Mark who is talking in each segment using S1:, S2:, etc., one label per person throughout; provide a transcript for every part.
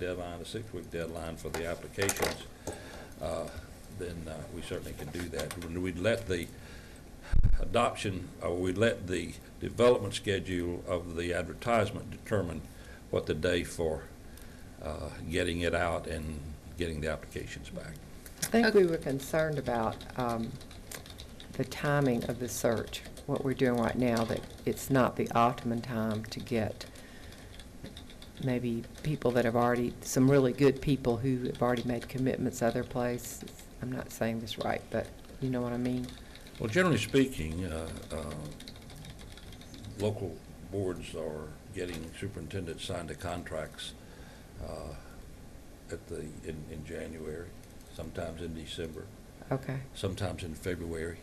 S1: deadline, a six-week deadline for the applications, uh, then uh, we certainly can do that. When We'd let the adoption, or we'd let the development schedule of the advertisement determine what the day for uh, getting it out and getting the applications back.
S2: I think we were concerned about um, the timing of the search, what we're doing right now, that it's not the optimum time to get maybe people that have already, some really good people who have already made commitments other places. I'm not saying this right, but you know what I mean?
S1: Well, generally speaking, uh, uh, local boards are getting superintendents signed to contracts uh, at the, in, in January, sometimes in December,
S2: Okay,
S1: sometimes in February.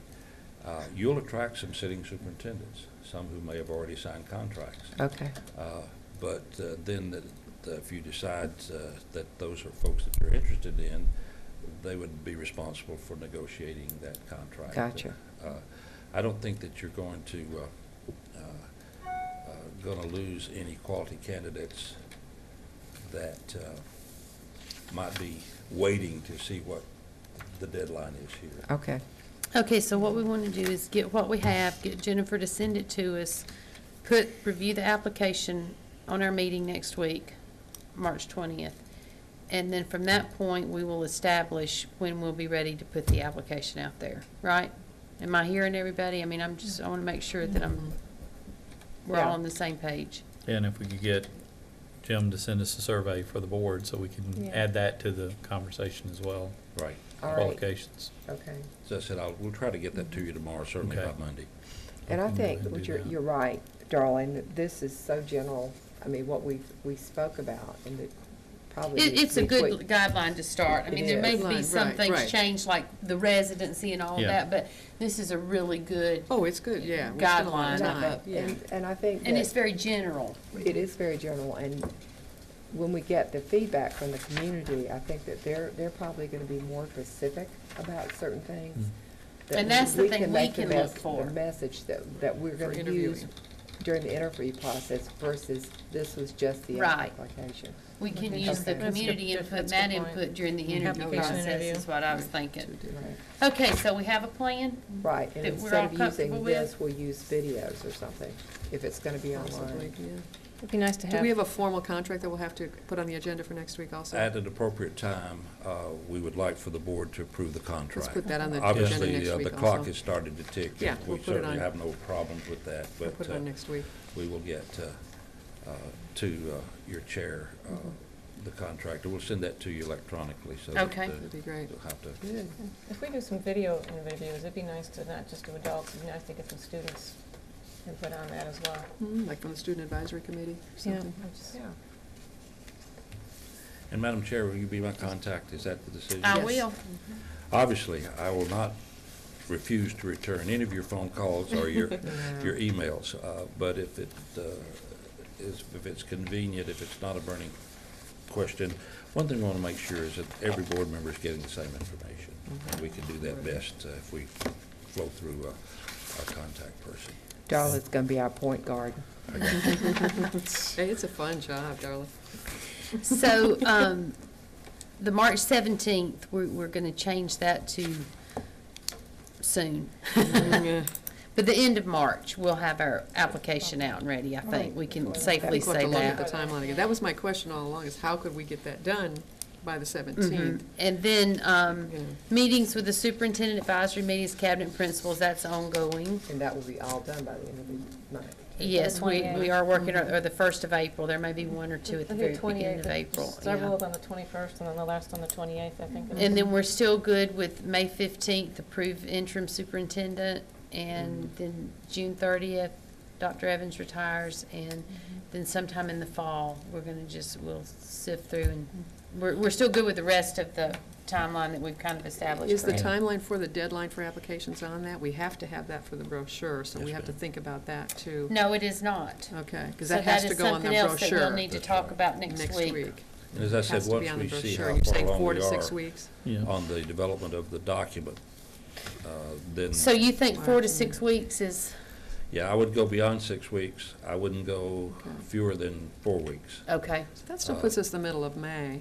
S1: Uh, You'll attract some sitting superintendents, some who may have already signed contracts.
S2: okay,
S1: Uh, But uh, then, the- the- if you decide uh, that those are folks that you're interested in, they would be responsible for negotiating that contract.
S2: Gotcha.
S1: Uh, I don't think that you're going to, uh, uh, uh, gonna lose any quality candidates that uh, might be waiting to see what the deadline is here.
S2: okay.
S3: Okay, so what we want to do is get what we have, get Jennifer to send it to us, put, review the application on our meeting next week, March twentieth. And then from that point, we will establish when we'll be ready to put the application out there, right? Am I hearing everybody? I mean, I'm just, I want to make sure that I'm, we're all on the same page.
S4: And if we could get Jim to send us a survey for the board, so we can
S2: Yeah.
S4: add that to the conversation as well,
S1: Right.
S2: All right,
S4: qualifications.
S2: okay.
S1: As I said, I'll, we'll try to get that to you tomorrow, certainly by
S4: Okay.
S1: Monday.
S2: And I
S4: Okay,
S2: think,
S4: we'll
S2: what
S4: do
S2: you're,
S4: that.
S2: you're right, darling, that this is so general, I mean, what we, we spoke about, and it probably.
S3: It,
S2: needs
S3: it's
S2: to
S3: a
S2: be
S3: good
S2: tweaked.
S3: guideline to start. I mean, there may
S2: It
S3: be
S5: is.
S3: some
S5: Right,
S3: things
S5: right.
S3: changed, like the residency and all of
S4: Yeah.
S3: that, but this is a really good
S5: Oh, it's good, yeah. We spent a lot of
S3: Guideline of
S5: time,
S3: a-
S5: yeah.
S2: And, and I think
S3: And it's
S2: that
S3: very general.
S2: it is very general, and when we get the feedback from the community, I think that they're, they're probably gonna be more specific about certain things. that
S3: And that's the thing we
S2: make
S3: can
S2: the mes-
S3: look for.
S2: The message that, that we're
S5: For
S2: gonna
S5: interviewing.
S2: use during the interview process versus this was just the
S3: Right.
S2: application.
S3: We can
S2: Okay.
S3: use the
S2: That's a good-
S3: community input, and
S6: that's a
S3: that
S6: good point.
S3: input during the interview
S6: Application
S3: process
S6: interview.
S3: is what I was
S5: Two
S3: thinking.
S5: different-
S2: Right.
S3: Okay, so we have a plan?
S2: Right, and
S3: that we're
S2: instead
S3: all
S2: of using
S3: comfortable with?
S2: this, we'll use videos or something, if it's gonna be
S5: Possibly,
S2: online.
S5: yeah.
S6: It'd be nice to
S5: Do we have
S6: have,
S5: a formal contract that we'll have to put on the agenda for next week also?
S1: At an appropriate time, uh, we would like for the board to approve the contract.
S5: Let's put that on the agenda
S1: Obviously,
S5: next
S1: uh, the
S5: week
S1: clock
S5: also.
S1: has started to tick. and
S5: Yeah, we'll
S1: We
S5: put it
S1: certainly
S5: on.
S1: have no problems with that,
S5: We'll
S1: but
S5: put it
S1: uh,
S5: on next week.
S1: we will get uh, uh, to uh, your chair, uh,
S5: Mm-hmm.
S1: the contractor. We'll send that to you electronically so that uh,
S3: Okay.
S5: That'd be great.
S1: you'll have to.
S5: Good.
S6: if we do some video interviews, it'd be nice to not just do adults, it'd be nice to get some students input on that as well.
S5: Mm, Like from the Student Advisory Committee or
S6: Mm-hmm. Yeah,
S5: something.
S6: I just-
S1: And Madam Chair, will you be my contact? Is that the decision?
S3: I
S5: Yes.
S3: will.
S1: Obviously, I will not refuse to return any of your phone calls or your, your emails, uh, but if it uh, is, if it's convenient, if it's not a burning question, one thing I want to make sure is that every board member is getting the same information. And we can do that best uh, if we flow through uh, our contact person.
S2: Darla's gonna be our point guard.
S5: Hey, it's a fun job, Darla.
S3: So, um, the March seventeenth, we're, we're gonna change that to soon. But the end of March, we'll have our application out and ready, I think. We can safely
S5: We'll have
S3: say
S5: to look at the
S3: that.
S5: timeline again. That was my question all along, is how could we get that done by the
S3: Mhm.
S5: seventeenth?
S3: And then, um,
S5: You know,
S3: meetings with the superintendent advisory meetings, cabinet principals, that's ongoing.
S2: And that will be all done by the end of the month.
S3: Yes, we, we
S6: 28th.
S3: are working, on- or the first of April, there may be one or two at the
S6: I
S3: very
S6: think
S3: beginning
S6: 28th,
S3: of April.
S6: Several
S3: yeah.
S6: of them the twenty-first, and then the last on the twenty-eighth, I think.
S3: And then we're still good with May fifteenth, approve interim superintendent,
S5: Mm-hmm.
S3: and then June thirtieth, Dr. Evans retires, and
S5: Mm-hmm.
S3: then sometime in the fall, we're gonna just, we'll sift through, and
S5: Mm-hmm.
S3: we're, we're still good with the rest of the timeline that we've kind of established.
S5: Is the
S3: correct?
S5: timeline for the deadline for applications on that? We have to have that for the brochure, so we
S1: Yes,
S5: have to
S1: ma'am.
S5: think about that too.
S3: No, it is not.
S5: Okay, because
S3: So
S5: that has to
S3: is
S5: go on the
S3: something else that we'll
S5: brochure
S3: need to
S1: That's
S3: talk
S1: right.
S3: about next
S5: next
S3: week.
S5: week.
S1: And as I said,
S5: Has to be
S1: once
S5: on the
S1: we see
S5: brochure.
S1: how
S5: You're
S1: far
S5: saying
S1: along
S5: four
S1: we
S5: to six
S1: are
S5: weeks.
S4: Yeah,
S1: on the development of the document, uh, then,
S3: So you think four to six weeks is,
S1: Yeah, I would go beyond six weeks. I wouldn't go
S5: Okay.
S1: fewer than four weeks.
S3: Okay.
S5: So That still
S1: Uh,
S5: puts us the middle of May.